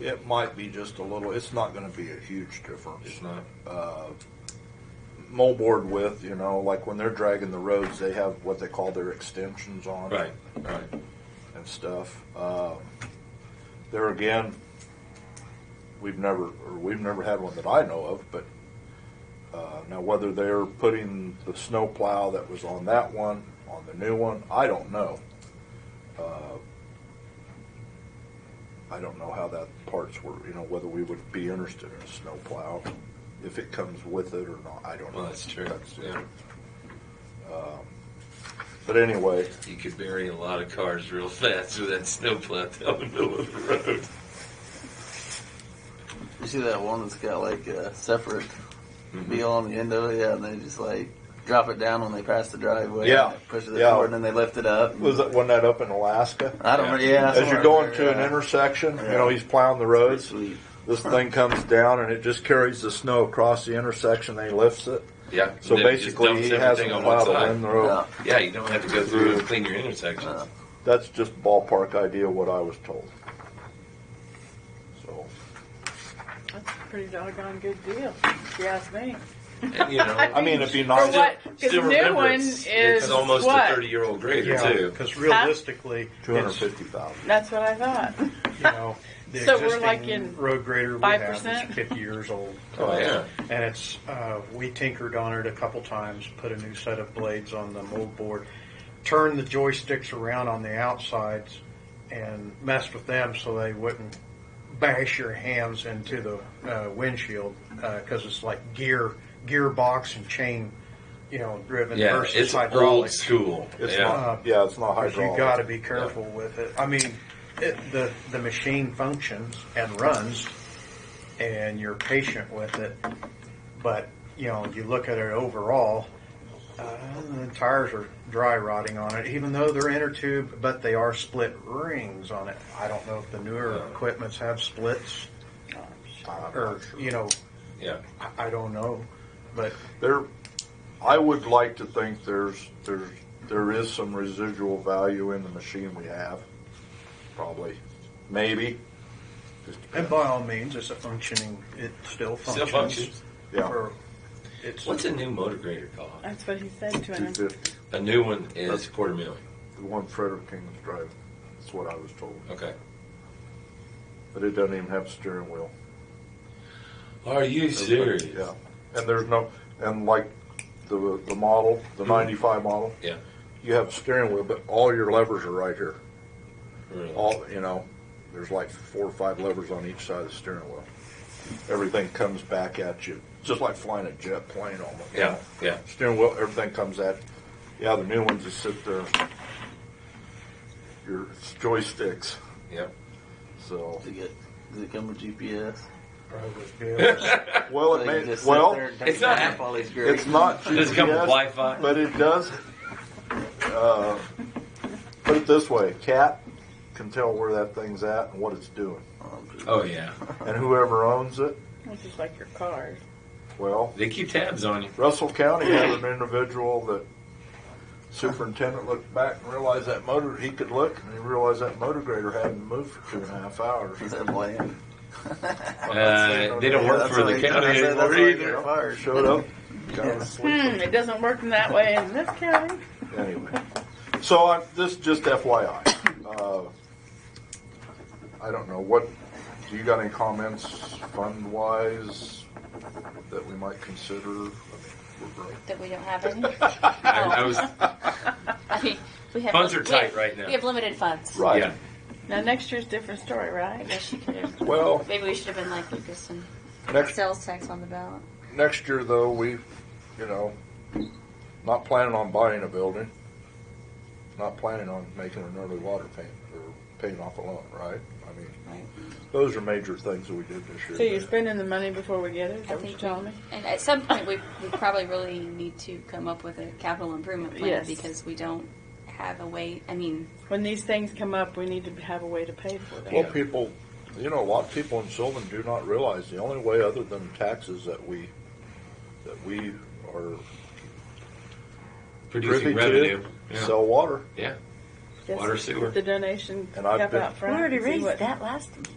it might be just a little, it's not gonna be a huge difference. It's not. Uh, Moldboard width, you know, like when they're dragging the roads, they have what they call their extensions on. it Right, right. and stuff. Um, there again, we've never, or we've never had one that I know of, but, uh, now whether they're putting the snow plow that was on that one, on the new one, I don't know. Uh, I don't know how that parts were, you know, whether we would be interested in a snow plow, if it comes with it or not, I don't know. Well, that's true. Yeah. Um, But anyway, You could bury a lot of cars real fast with that snowplow down the middle of the road. You see that one that's got like a separate Mm-hmm. wheel on the end of it, yeah, and they just like drop it down when they pass the driveway. Yeah. and they push it Yeah. forward, and then they lift it up. was that, wasn't that up in Alaska? I don't. Yeah. yeah As you're somewhere going there, to an yeah. intersection, you Yeah. know, he's plowing the roads. Sweet. This thing comes down and it just carries the snow across the intersection. They lifts it. Yeah. So Then it just basically, dumps he has everything a on one plow to side. win the road. Yeah. Yeah, you don't have to go through and clean your intersections. Uh, Uh-huh. That's just ballpark idea what I was told. So, That's a pretty doggone good deal, if you ask me. And, you know, I mean, it'd be For nice. what? Because still the new remember, one it's, is it's almost what? a 30 year old grader, Yeah, too. because realistically, Two hundred it's, you fifty thousand. That's what I thought. know, the So we're like existing in road grader we have 5%? is fifty years old. Oh, yeah. And it's, uh, we tinkered on it a couple times, put a new set of blades on the mold board, turned the joysticks around on the outsides and messed with them so they wouldn't bash your hands into the uh, windshield, because it's like gear, gearbox and chain, you know, driven Yeah, versus it's old hydraulics. school. It's yeah. not. Yeah, it's not Because hydraulic. you got to be careful with it. I mean, it, the the machine functions and runs, and you're patient with it. But you know, you look at it overall, uh, the tires are dry rotting on it, even though they're inner tube, but they are split rings on it. I don't know if the newer equipments have splits, or you know, Yeah. I- I don't know, but There, I would like to think there's there's there is some residual value in the machine we have. Probably, maybe. Just and by all means, it's a functioning. It still Still functions. functions. Yeah. For, it's What's a new motor grader cost? That's what he said to two him. fifty. A new one is quarter million. The one Frederick King was driving. That's what I was told. Okay. But it doesn't even have a steering wheel. Are you serious? Yeah. And there's no, and like the the model, the '95 model. Hmm. Yeah. You have a steering wheel, but all your levers are right here. Really? All you know, there's like four or five levers on each side of the steering wheel. Everything comes back at you, just like flying a jet plane almost. Yeah, yeah. Steering wheel, everything comes at. Yeah, the new ones just sit there. Your joysticks. Yeah. So. Does it, get, does it come with GPS? probably good. Well, it So you may, just sit well, there and it's dump not- all these great- it's not GPS, Does it come with Wi-Fi? but it does. Uh, put it this way, cat can tell where that thing's at and what it's doing, Oh yeah. and whoever owns it. Which is like your cars. Well, They keep tabs on you. Russell County had an individual that superintendent looked back and realized that motor he could look, and he realized that motor grader hadn't moved for two and a half hours. Is that bland? Uh, they don't work That's for why the he- county that's why- that's anymore why he got either. fired. Showed up, got a Hmm, it doesn't work in that way in this county. Anyway, so I, this just FYI. Uh, I don't know what. Do you got any comments fund wise that we might consider? I mean, we're broke. That we don't have any? I, I was I mean, we have Funds are we have- tight right now. We have limited funds. Right. yeah. Now, next year's different story, I right? guess you could have. Well, Maybe we should have been like Lucas and put next sales tax on the ballot. next year though, we, you know, not planning on buying a building. Not planning on making an early water payment or paying off a loan, right? I mean, Right. those are major things that we did this year. So you're spending the money before we get it? Is I that what think you're telling me? And at some point, we, we probably really need to come up with a capital improvement plan Yes. because we don't have a way. I mean, When these things come up, we need to have a way to pay for them. Well, people, you know, a lot of people in Sylvan do not realize the only way other than taxes that we, that we are privy Producing revenue. to, Yeah. sell water. yeah. Just water, sewer. The donation And I've cap been- out front. and see what- last